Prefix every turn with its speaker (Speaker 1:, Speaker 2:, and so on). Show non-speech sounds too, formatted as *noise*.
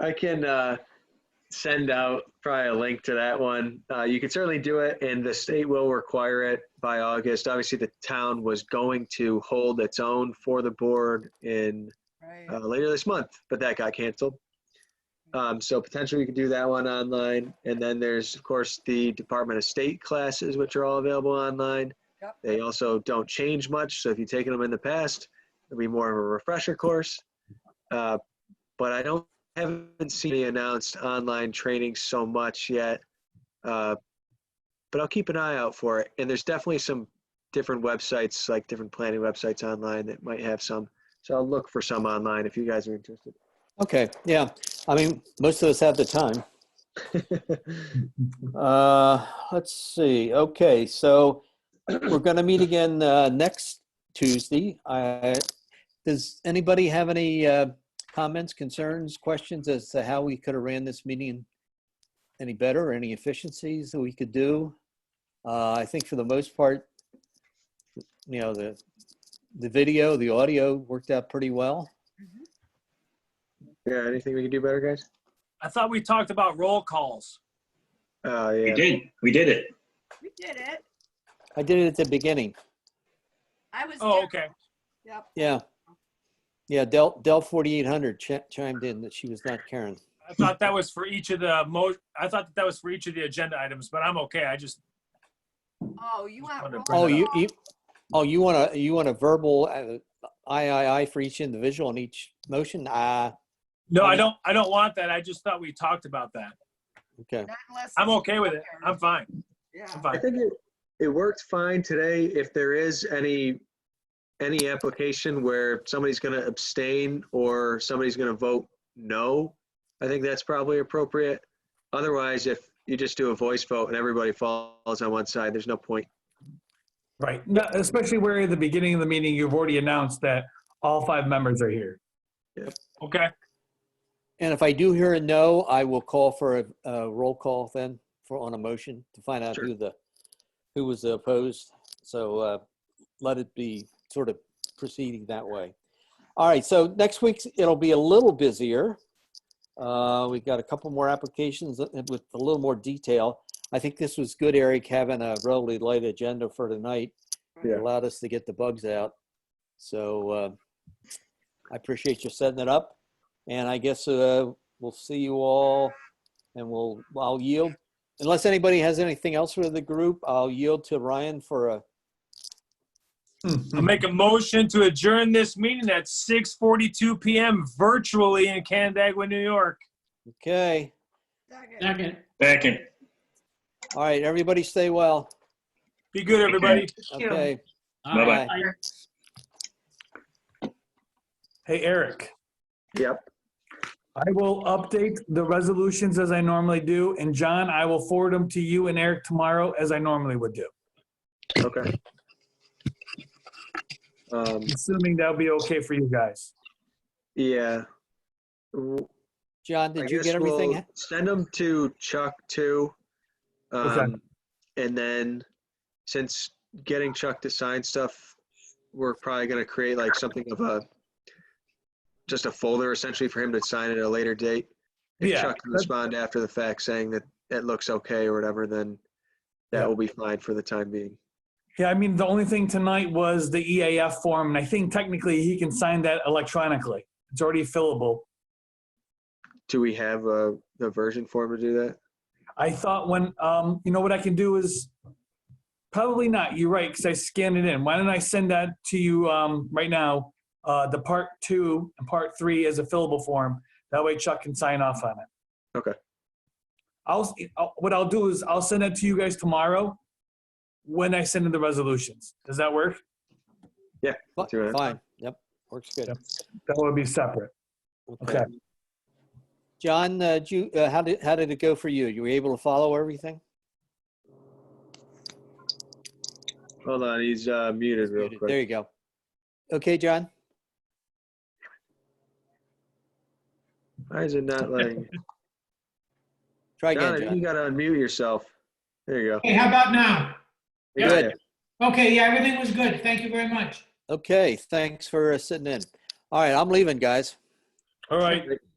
Speaker 1: I can uh, send out probably a link to that one. Uh, you can certainly do it, and the state will require it by August. Obviously, the town was going to hold its own for the board in uh,
Speaker 2: Right.
Speaker 1: later this month, but that got canceled. Um, so potentially we could do that one online. And then there's, of course, the Department of State classes, which are all available online.
Speaker 2: Yep.
Speaker 1: They also don't change much. So if you've taken them in the past, it'll be more of a refresher course. Uh, but I don't haven't seen any announced online training so much yet. Uh, but I'll keep an eye out for it. And there's definitely some different websites, like different planning websites online that might have some. So I'll look for some online if you guys are interested.
Speaker 3: Okay, yeah. I mean, most of us have the time. Uh, let's see. Okay, so *clears throat* we're going to meet again uh, next Tuesday. I, does anybody have any uh, comments, concerns, questions as to how we could have ran this meeting any better, any efficiencies that we could do? Uh, I think for the most part, you know, the the video, the audio worked out pretty well.
Speaker 1: Yeah, anything we can do better, guys?
Speaker 4: I thought we talked about roll calls.
Speaker 1: Oh,
Speaker 5: We
Speaker 1: yeah.
Speaker 5: did. We did it.
Speaker 2: We did it.
Speaker 3: I did it at the beginning.
Speaker 2: I was.
Speaker 4: Oh,
Speaker 2: there.
Speaker 4: okay.
Speaker 2: Yep.
Speaker 3: Yeah. Yeah, Dell, Dell 4800 chi- chimed in that she was not Karen.
Speaker 4: I thought that was for each of the mo, I thought that, that was for each of the agenda items, but I'm okay. I just,
Speaker 2: Oh,
Speaker 4: Just
Speaker 2: you want.
Speaker 4: wanted to
Speaker 2: roll
Speaker 4: bring
Speaker 3: Oh,
Speaker 4: it
Speaker 3: you,
Speaker 2: call?
Speaker 3: you, oh, you want to, you want a verbal uh, aye, aye, aye for each individual on each motion? Ah,
Speaker 4: no, I don't, I don't want that. I just thought we talked about that.
Speaker 3: okay.
Speaker 2: Not unless
Speaker 4: I'm
Speaker 2: it's-
Speaker 4: okay with it. I'm fine.
Speaker 2: Yeah.
Speaker 4: I'm
Speaker 1: I
Speaker 4: fine.
Speaker 1: think it, it worked fine today. If there is any, any application where somebody's gonna abstain or somebody's gonna vote no, I think that's probably appropriate. Otherwise, if you just do a voice vote and everybody falls on one side, there's no point.
Speaker 6: Right, No, especially where at the beginning of the meeting, you've already announced that all five members are here.
Speaker 4: Okay.
Speaker 3: And if I do hear a no, I will call for a, a roll call then for, on a motion to find out
Speaker 1: Sure.
Speaker 3: who the, who was opposed. So, uh, let it be sort of proceeding that way. All right, so next week it'll be a little busier. Uh, we've got a couple more applications with with a little more detail. I think this was good, Eric, having a relatively light agenda for tonight. It
Speaker 1: Yeah.
Speaker 3: allowed us to get the bugs out. So uh, I appreciate you setting it up. And I guess uh, we'll see you all and we'll, I'll yield. Unless anybody has anything else for the group, I'll yield to Ryan for a,
Speaker 6: Mm-hmm.
Speaker 4: I'll make a motion to adjourn this meeting at 6:42 PM virtually in Canandaigua, New York.
Speaker 3: okay.
Speaker 2: Second.
Speaker 7: Second.
Speaker 5: Second.
Speaker 3: All right, everybody stay well.
Speaker 4: Be good, everybody.
Speaker 7: you.
Speaker 3: Okay.
Speaker 7: All right.
Speaker 6: Hey, Eric,
Speaker 1: Yep.
Speaker 6: I will update the resolutions as I normally do, and John, I will forward them to you and Eric tomorrow as I normally would do,
Speaker 1: Okay. Um,
Speaker 6: assuming that'll be okay for you guys.
Speaker 1: yeah. W-
Speaker 3: John,
Speaker 1: I
Speaker 3: did you
Speaker 1: guess
Speaker 3: get everything?
Speaker 1: we'll Send them to Chuck too.
Speaker 6: Okay.
Speaker 1: Um, and then since getting Chuck to sign stuff, we're probably gonna create like something of a, just a folder essentially for him to sign at a later date. If
Speaker 6: Yeah,
Speaker 1: Chuck can
Speaker 6: that's-
Speaker 1: respond after the fact saying that that looks okay or whatever, then
Speaker 6: Yeah.
Speaker 1: that will be fine for the time being.
Speaker 6: Yeah, I mean, the only thing tonight was the EAF form, and I think technically he can sign that electronically. It's already fillable.
Speaker 1: Do we have uh, the version form to do that?
Speaker 6: I thought when, um, you know what I can do is, probably not, you're right, because I scanned it in. Why don't I send that to you, um, right now? Uh, the part two and part three as a fillable form. That way Chuck can sign off on it.
Speaker 1: Okay.
Speaker 6: I'll, s- I'll- what I'll do is I'll send that to you guys tomorrow when I send in the resolutions. Does that work?
Speaker 3: Fi-
Speaker 1: do it.
Speaker 3: Fine, yep, works good.
Speaker 6: Yep. That would be separate. Okay.
Speaker 3: John, uh, did you, uh, how did, how did it go for you? You were able to follow everything?
Speaker 1: Hold on, he's uh, muted real quick.
Speaker 3: There you go. Okay, John?
Speaker 1: Why is it *laughs* not letting?
Speaker 3: Try
Speaker 1: John,
Speaker 3: again,
Speaker 1: I think you
Speaker 3: John.
Speaker 1: gotta unmute yourself. There you go.
Speaker 7: Hey, how about now?
Speaker 1: We
Speaker 7: Yeah.
Speaker 1: got
Speaker 3: Good.
Speaker 1: you.
Speaker 7: Okay, yeah, everything was good. Thank you very much.
Speaker 3: Okay, thanks for uh, sitting in. All right, I'm leaving, guys.
Speaker 6: All right.